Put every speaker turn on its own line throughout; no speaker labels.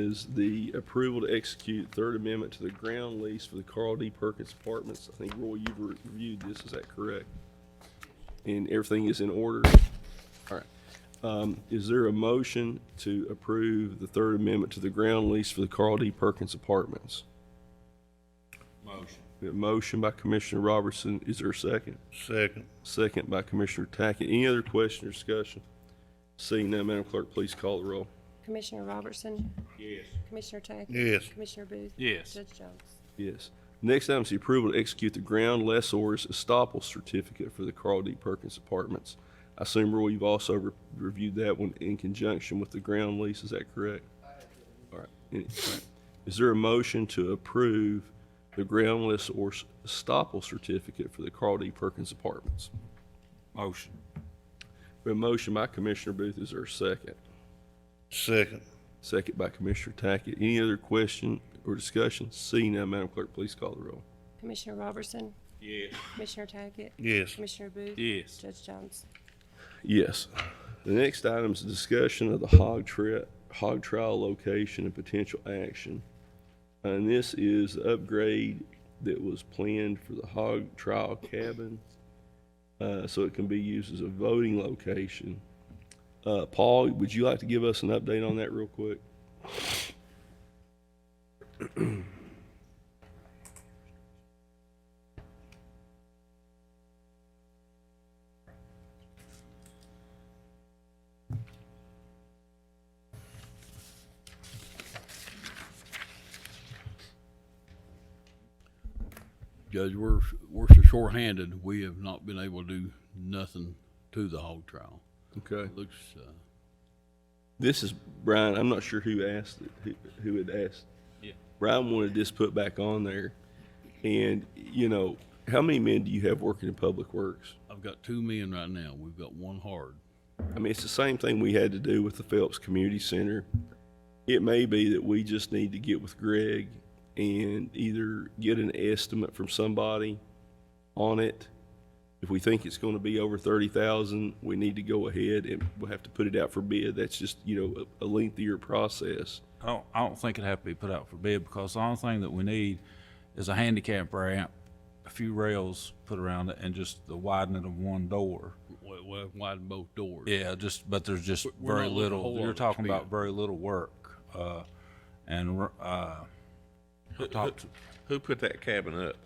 is the approval to execute Third Amendment to the ground lease for the Carl D. Perkins Apartments. I think, Roy, you've reviewed this, is that correct? And everything is in order? All right. Um, Is there a motion to approve the Third Amendment to the ground lease for the Carl D. Perkins Apartments?
Motion.
We have A motion by Commissioner Robertson, is there a second?
Second.
Second by Commissioner Tackett. Any other question or discussion? Seeing none, Madam Clerk, please call the roll.
Commissioner Robertson,
Yes.
Commissioner Tackett.
Yes.
Commissioner Booth.
Yes.
Judge Jones.
Yes. Next item is the approval to execute the ground lessor's estoppel certificate for the Carl D. Perkins Apartments. I assume, Roy, you've also re- reviewed that one in conjunction with the ground lease, is that correct? All right. Any- all right. Is there a motion to approve the ground lessor's estoppel certificate for the Carl D. Perkins Apartments?
Motion.
A motion by Commissioner Booth, is there a second?
Second.
Second by Commissioner Tackett. Any other question or discussion? Seeing none, Madam Clerk, please call the roll.
Commissioner Robertson,
Yes.
Commissioner Tackett.
Yes.
Commissioner Booth.
Yes.
Judge Jones.
Yes. The next item is a discussion of the hog tri- hog trial location and potential action. And this is the upgrade that was planned for the hog trial cabin. Uh, so it can be used as a voting location. Uh, Paul, would you like to give us an update on that real quick?
Judge, we're, we're so shorthanded, we have not been able to do nothing to the hog trial.
Okay.
It looks, uh,
This is Brian. I'm not sure who asked it, who, who had asked.
Yeah.
Brian wanted this put back on there. And, you know, how many men do you have working in public works?
I've got two men right now. We've got one hard.
I mean, it's the same thing we had to do with the Phelps Community Center. It may be that we just need to get with Greg and either get an estimate from somebody on it. If we think it's going to be over thirty thousand, we need to go ahead and we'll have to put it out for bid. That's just, you know, a a lengthier process.
I don't, I don't think it'd have to be put out for bid because the only thing that we need is a handicap ramp, a few rails put around it and just the widening of one door.
We, we have widened both doors.
Yeah, just, but there's just
We're
very
not looking a whole
little,
lot
you're
at
talking
speed.
about very little work. Uh, and, we're, uh, talked,
Who put that cabin up?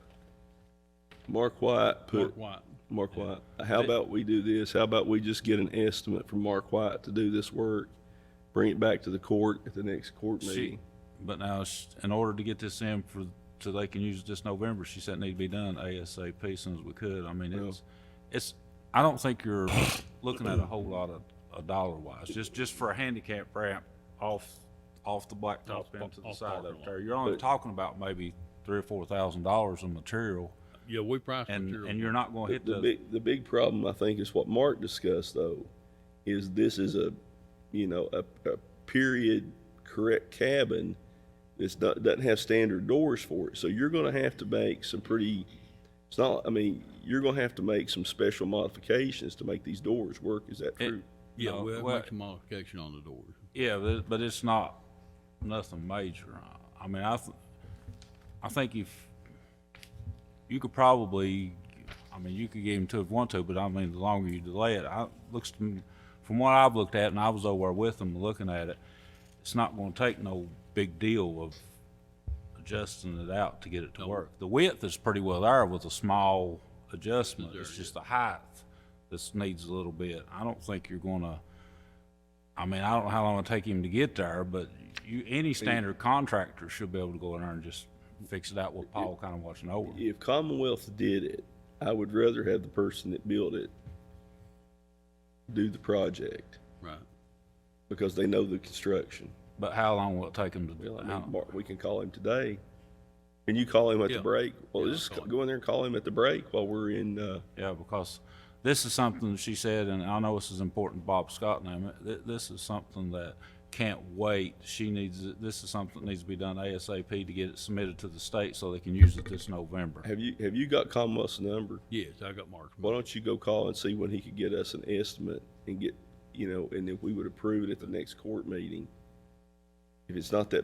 Mark White put.
Mark White.
Mark White, how about we do this? How about we just get an estimate from Mark White to do this work? Bring it back to the court at the next court
she,
meeting.
but now it's- in order to get this in for, so they can use it this November, she said it need to be done ASAP soon as we could. I mean, it's, it's, I don't think you're looking at a whole lot of, of dollar wise, just, just for a handicap ramp off, off the blacktop
Off-
into the
off
side
parking
up
lot.
there. You're only talking about maybe three or four thousand dollars in material
Yeah, we priced
and,
material.
and you're not gonna hit
The
the,
big, the big problem, I think, is what Mark discussed though, is this is a, you know, a, a period correct cabin. that's not, doesn't have standard doors for it, so you're gonna have to make some pretty, it's not, I mean, you're gonna have to make some special modifications to make these doors work, is that true?
Yeah,
No,
we have
well-
make some modification on the doors.
yeah, but, it- but it's not nothing major. I- I mean, I, th- I think if, you could probably, I mean, you could give him two if you want to, but I mean, the longer you delay it, I, looks to me, from what I've looked at, and I was over with them looking at it, it's not gonna take no big deal of adjusting it out to get it to work. The width is pretty well there with a small adjustment, it's just the height that needs a little bit. I don't think you're gonna, I mean, I don't know how long it'll take him to get there, but you, any standard contractor should be able to go in there and just fix it out with Paul kinda watching over.
if Commonwealth did it, I would rather have the person that built it do the project
Right.
because they know the construction.
But how long will it take them to do
Well, I
it?
mean, Mark, we can call him today. Can you call him at the
Yeah.
break? Well,
Yeah,
just
I'll call him.
go in there and call him at the break while we're in, uh,
Yeah, because this is something she said, and I know this is important to Bob Scott now, th- this is something that can't wait. She needs, it- this is something that needs to be done ASAP to get it submitted to the state so they can use it this November.
have you, have you got Commonwealth's number?
Yes, I got Mark's.
Why don't you go call and see when he could get us an estimate and get, you know, and if we would approve it at the next court meeting? If it's not that